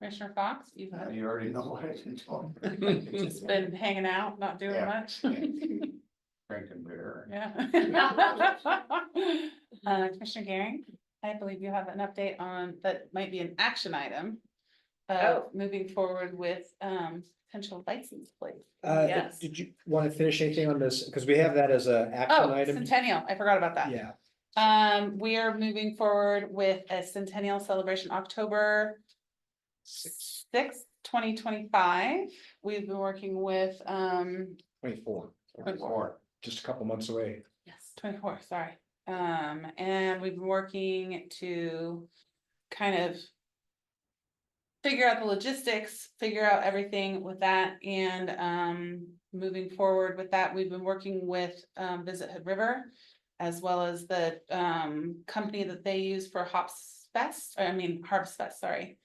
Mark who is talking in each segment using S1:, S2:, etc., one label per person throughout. S1: Commissioner Fox, you've
S2: Uh,
S3: You already know what I can talk.
S1: just been hanging out, not doing
S3: Yeah.
S1: much.
S3: Drinking beer.
S1: Yeah. Uh, Commissioner Garing, I believe you have an update on, that might be an action item. Uh,
S4: Oh.
S1: moving forward with, um, potential license plate.
S2: Uh, did-
S4: Yes.
S2: did you want to finish anything on this? Because we have that as a action
S1: Oh,
S2: item.
S1: Centennial, I forgot about that.
S2: Yeah,
S1: Um, we are moving forward with a centennial celebration October. Sixth, twenty twenty-five. We've been working with, um,
S2: twenty-four,
S3: Before.
S2: just a couple months away.
S1: yes, twenty-four, sorry. Um, and we've been working to kind of. Figure out the logistics, figure out everything with that and, um, moving forward with that, we've been working with, um, Visit Hood River. As well as the, um, company that they use for Hops Fest, I mean Harvest Fest, sorry.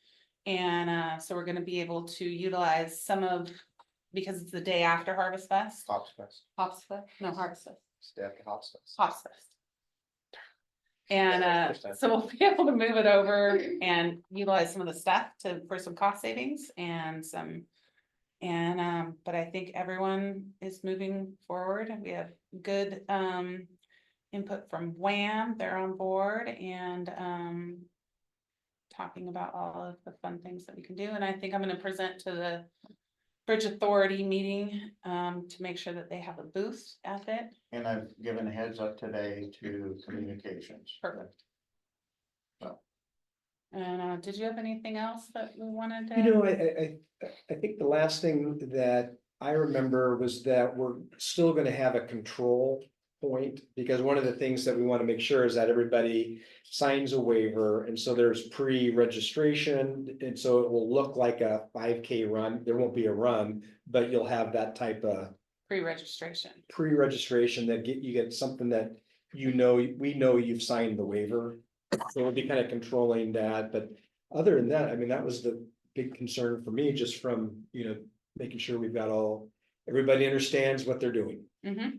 S1: And, uh, so we're gonna be able to utilize some of, because it's the day after Harvest Fest,
S3: Hops Fest,
S1: Hops Fest, no, Harvest Fest.
S3: staff hops fest.
S1: Hops Fest. And uh, so we'll be able to move it over and utilize some of the stuff to, for some cost savings and some. And um, but I think everyone is moving forward. We have good um. Input from Wham, they're on board and um. Talking about all of the fun things that we can do, and I think I'm gonna present to the. Bridge Authority meeting um, to make sure that they have a booth at it.
S3: And I've given a heads up today to communications.
S1: Perfect.
S3: Well.
S1: And uh, did you have anything else that we wanted to?
S2: You know, I, I, I, I think the last thing that I remember was that we're still gonna have a control point. Because one of the things that we want to make sure is that everybody signs a waiver, and so there's pre-registration. And so it will look like a five K run, there won't be a run, but you'll have that type of
S1: Pre-registration.
S2: pre-registration that get, you get something that you know, we know you've signed the waiver. So we'll be kind of controlling that, but other than that, I mean, that was the big concern for me, just from, you know, making sure we've got all, everybody understands what they're doing.
S1: Mhm.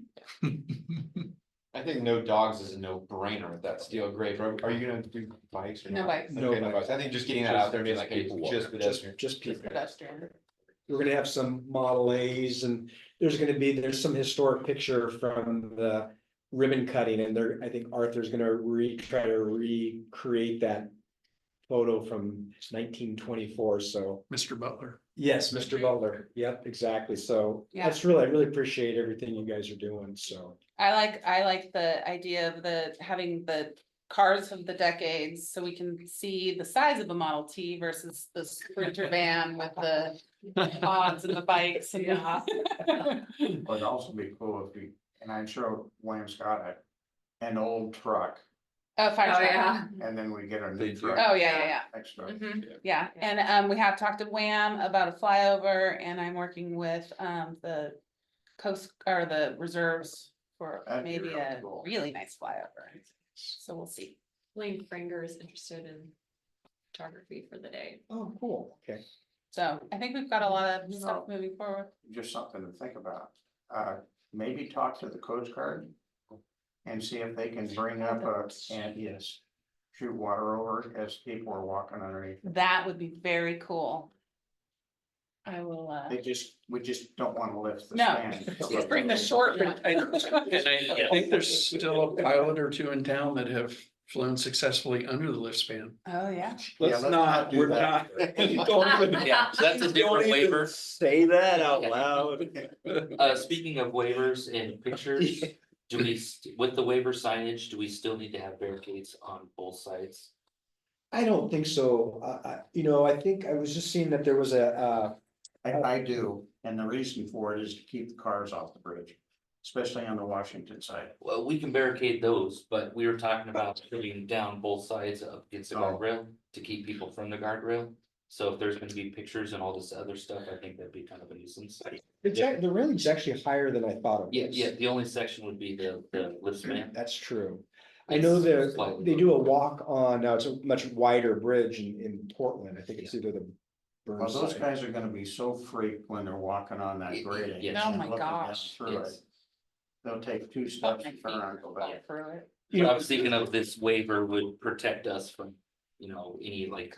S5: I think no dogs is a no brainer with that steel grave. Are, are you gonna do bikes or
S1: No
S5: not?
S1: bikes.
S2: No
S5: Okay, no
S2: bikes.
S5: bikes. I think just getting that out there, being
S3: Just
S5: like, hey,
S3: people walking.
S5: just
S2: Just,
S5: pedestrian.
S2: just people.
S1: Pedestrian.
S2: We're gonna have some Model As and there's gonna be, there's some historic picture from the ribbon cutting and there, I think Arthur's gonna re, try to recreate that. Photo from nineteen twenty-four, so. Mr. Butler. Yes, Mr. Butler. Yep, exactly. So
S1: Yeah.
S2: that's really, I really appreciate everything you guys are doing, so.
S1: I like, I like the idea of the, having the cars of the decades, so we can see the size of the Model T versus the Sprinter van with the odds and the bikes and the.
S3: But it'd also be cool if we, and I'm sure William Scott had an old truck
S1: Oh, fire
S4: Oh,
S1: truck.
S4: yeah.
S3: and then we get a
S5: They
S3: new
S5: do.
S3: truck
S1: Oh, yeah, yeah, yeah.
S3: next time.
S1: Mhm,
S5: Yeah.
S1: yeah,
S4: Yeah.
S1: and um, we have talked to Wham about a flyover and I'm working with um, the coast or the reserves for
S3: That'd be
S1: maybe
S3: really
S1: a
S3: cool.
S1: really nice flyover. So we'll see.
S4: Lane Franger is interested in photography for the day.
S2: Oh, cool. Okay.
S1: So I think we've got a lot of
S3: You
S1: stuff moving forward.
S3: just something to think about. Uh, maybe talk to the Coast Guard. And see if they can bring up a, and yes, shoot water over as people are walking underneath.
S1: That would be very cool. I will, uh,
S3: They just, we just don't want to lift the
S1: No.
S3: stand.
S1: just bring the short one.
S6: I- And I think there's still a pilot or two in town that have flown successfully under the lift span.
S1: Oh, yeah.
S3: let's not do that.
S7: Yeah, so that's a different waiver.
S2: Say that
S7: out
S2: loud.
S7: Uh, speaking of waivers and pictures, do we, st- with the waiver signage, do we still need to have barricades on both sides?
S2: I don't think so. I, I, you know, I think I was just seeing that there was a, uh,
S3: I, I do, and the reason for it is to keep the cars off the bridge, especially on the Washington side.
S7: Well, we can barricade those, but we were talking about putting down both sides up against the
S3: Oh.
S7: guardrail to keep people from the guardrail. So if there's gonna be pictures and all this other stuff, I think that'd be kind of a nuisance.
S2: The jack, the railing's actually higher than I thought it was.
S7: Yeah, yeah, the only section would be the, the lift span.
S2: That's true. I know
S7: It's
S2: they're,
S7: slightly
S2: they
S7: lower.
S2: do a walk on, now it's a much wider bridge in, in Portland. I think it's either the.
S3: Well, those
S2: Burnside.
S3: guys are gonna be so freaked when they're walking on that grading.
S7: Yes.
S1: Oh
S3: and
S1: my
S3: looking down
S1: gosh.
S3: through it.
S7: Yes.
S3: They'll take two steps and turn around and go back.
S1: Walk through it.
S2: You
S7: But I
S2: know,
S7: was thinking of this waiver would protect us from, you know, any like